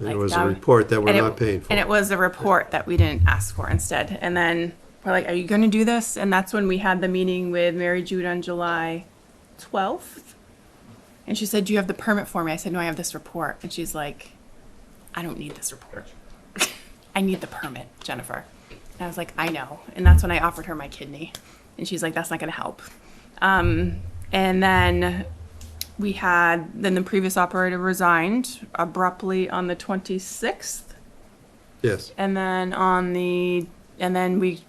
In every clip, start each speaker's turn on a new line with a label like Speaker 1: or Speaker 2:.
Speaker 1: It
Speaker 2: like
Speaker 1: was a
Speaker 2: that.
Speaker 1: report that we're
Speaker 2: And it-
Speaker 1: not paying for.
Speaker 2: And it was a report that we didn't ask for instead. And then we're like, are you gonna do this? And that's when we had the meeting with Mary Jude on July twelfth. And she said, do you have the permit for me? I said, no, I have this report. And she's like, I don't need this report. I need the permit, Jennifer. And I was like, I know. And that's when I offered her my kidney. And she's like, that's not gonna help. Um, and then we had, then the previous operator resigned abruptly on the twenty-sixth.
Speaker 1: Yes,
Speaker 2: And then on the, and then we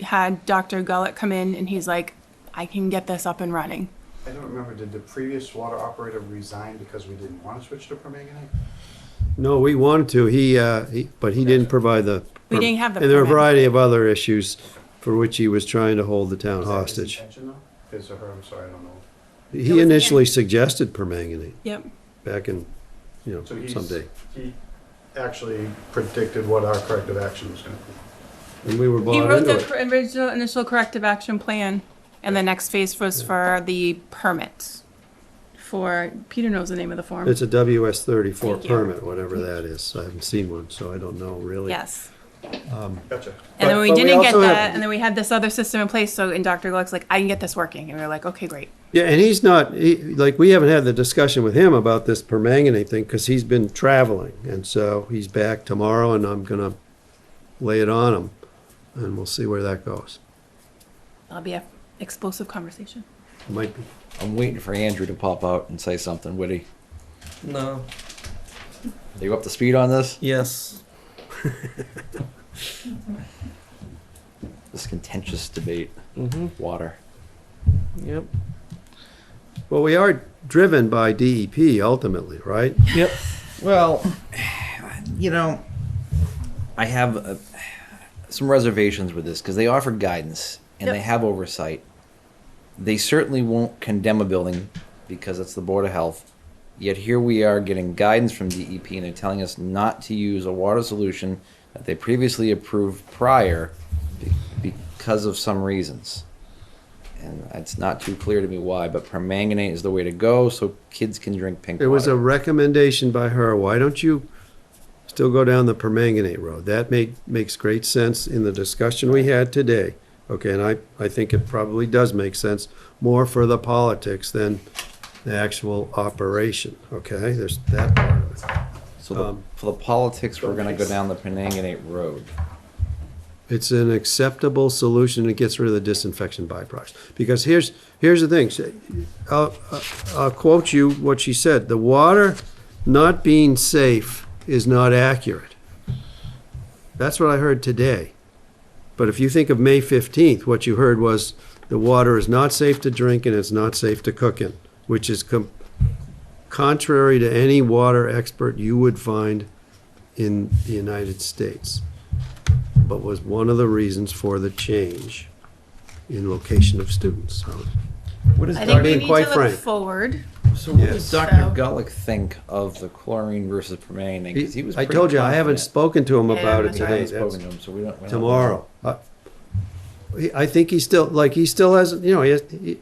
Speaker 2: had Dr. Gullett come in and he's like, I can get this up and running.
Speaker 3: I don't remember, did the previous water operator resign because we didn't want to switch to permanganate?
Speaker 1: no, we wanted to, he, uh, he, but he didn't provide the.
Speaker 2: We didn't have the
Speaker 1: And there were a
Speaker 2: permit.
Speaker 1: variety of other issues for which he was trying to hold the town
Speaker 3: Was that his
Speaker 1: hostage.
Speaker 3: intention, though? His or her, I'm sorry, I don't know.
Speaker 1: He
Speaker 2: was-
Speaker 1: initially suggested permanganate
Speaker 2: Yep.
Speaker 1: back in, you know,
Speaker 3: So he's-
Speaker 1: someday.
Speaker 3: He actually predicted what our corrective action was gonna be.
Speaker 1: And we were
Speaker 2: He
Speaker 1: bought
Speaker 2: wrote
Speaker 1: into
Speaker 2: the
Speaker 1: it.
Speaker 2: cor- original initial corrective action plan and the next phase was for the permits for, Peter knows the name of the form.
Speaker 1: It's a WS thirty-four
Speaker 2: Thank you.
Speaker 1: permit, whatever that is. I haven't seen one, so I don't know really.
Speaker 2: Yes.
Speaker 3: Gotcha.
Speaker 2: And then
Speaker 1: But-
Speaker 2: we
Speaker 1: but we
Speaker 2: didn't get
Speaker 1: also have-
Speaker 2: that, and then we had this other system in place, so, and Dr. Gluck's like, I can get this working, and we were like, okay, great.
Speaker 1: Yeah, and he's not, he, like, we haven't had the discussion with him about this permanganate thing, because he's been traveling, and so he's back tomorrow, and I'm gonna lay it on him, and we'll see where that goes.
Speaker 2: That'll be a explosive conversation.
Speaker 1: Might be,
Speaker 4: I'm waiting for Andrew to pop out and say something witty.
Speaker 5: No.
Speaker 4: Are you up to speed on this?
Speaker 5: Yes.
Speaker 4: This contentious debate.
Speaker 5: Mm-hmm.
Speaker 4: Water.
Speaker 5: Yep.
Speaker 1: well, we are driven by DEP ultimately, right?
Speaker 5: Yep.
Speaker 4: Well, you know, I have uh some reservations with this because they offer guidance and they
Speaker 2: Yep.
Speaker 4: have oversight. They certainly won't condemn a building because it's the Board of Health. Yet here we are getting guidance from DEP and they're telling us not to use a water solution that they previously approved prior be- because of some reasons. And it's not too clear to me why, but permanganate is the way to go so kids can drink pink
Speaker 1: It was a
Speaker 4: water.
Speaker 1: recommendation by her, why don't you still go down the permanganate road? That made, makes great sense in the discussion we had today. Okay, and I, I think it probably does make sense, more for the politics than the actual operation, okay? There's that part of it.
Speaker 4: So the,
Speaker 1: Um,
Speaker 4: for the politics, we're gonna go down the Penanganate Road.
Speaker 1: It's an acceptable solution, it gets rid of the disinfection byproducts. Because here's, here's the thing, she- I'll, I'll quote you what she said, "The water not being safe is not accurate." That's what I heard today. But if you think of May 15th, what you heard was, "The water is not safe to drink and it's not safe to cook in," which is com- contrary to any water expert you would find in the United States but was one of the reasons for the change in location of students. So,
Speaker 4: What is
Speaker 2: I think we need
Speaker 1: being
Speaker 4: Dr.,
Speaker 2: to
Speaker 1: quite
Speaker 2: look
Speaker 1: frank.
Speaker 2: forward.
Speaker 4: so what does
Speaker 1: Yes.
Speaker 4: Dr. Gulick think of the chlorine versus permanganate? 'Cause he was
Speaker 1: I
Speaker 4: pretty
Speaker 1: told you, I haven't
Speaker 4: confident.
Speaker 1: spoken to him
Speaker 2: Yeah,
Speaker 1: about it
Speaker 2: that's
Speaker 4: We
Speaker 1: today.
Speaker 4: haven't
Speaker 1: That's
Speaker 4: spoken to him, so we don't. we don't-
Speaker 1: tomorrow. I- he- I think he still, like, he still hasn't, you know, he has, he-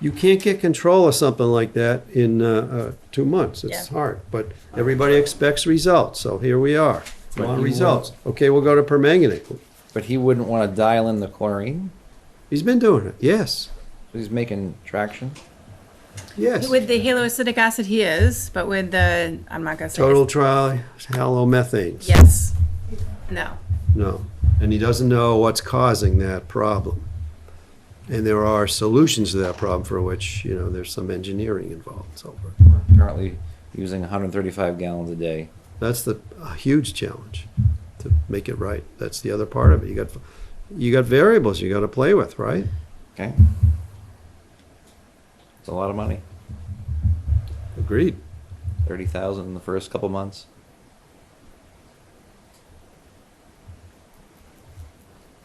Speaker 1: you can't get control of something like that in uh, uh, two months. It's
Speaker 2: Yeah.
Speaker 1: hard, but everybody expects results, so here we are.
Speaker 4: But
Speaker 1: Want
Speaker 4: he
Speaker 1: results. Okay, we'll go to permanganate.
Speaker 4: But he wouldn't wanna dial in the chlorine,
Speaker 1: He's been doing it, yes,
Speaker 4: so he's making traction.
Speaker 1: yes.
Speaker 2: With the haloacidic acid, he is, but with the, I'm not gonna say. his-
Speaker 1: Total trial halomethanes.
Speaker 2: Yes. No.
Speaker 1: No, and he doesn't know what's causing that problem. And there are solutions to that problem for which, you know, there's some engineering involved and so forth.
Speaker 4: Apparently using hundred and thirty-five gallons a day.
Speaker 1: That's the a huge challenge to make it right. That's the other part of it. You got you got variables you got to play with, right?
Speaker 4: Okay. It's a lot of money.
Speaker 1: Agreed.
Speaker 4: Thirty thousand in the first couple months.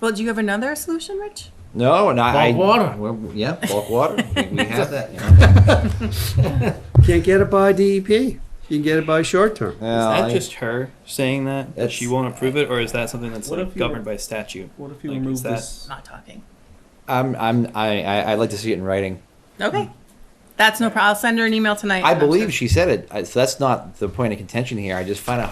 Speaker 2: Well, do you have another solution, Rich?
Speaker 4: No, and I.
Speaker 5: Bulk water.
Speaker 4: Well, Yeah, bulk water. We- We have that. you know.
Speaker 1: Can't get it by DEP. You can get it by short term.
Speaker 4: Well,
Speaker 6: is
Speaker 4: I-
Speaker 6: that just her saying that that she
Speaker 4: That's-
Speaker 6: won't approve it, or is that something that's
Speaker 5: What
Speaker 6: like
Speaker 5: if you-
Speaker 6: governed by statute?
Speaker 5: What if you
Speaker 6: Like,
Speaker 5: remove
Speaker 6: is that-
Speaker 5: this?
Speaker 2: Not talking.
Speaker 4: I'm, I'm, I, I, I'd like to see it in writing.
Speaker 1: Hmm.
Speaker 2: Okay. That's no problem. I'll send her an email tonight.
Speaker 4: I
Speaker 2: and I'm sure-
Speaker 4: believe she said it. I- So that's not the point of contention here. I just find it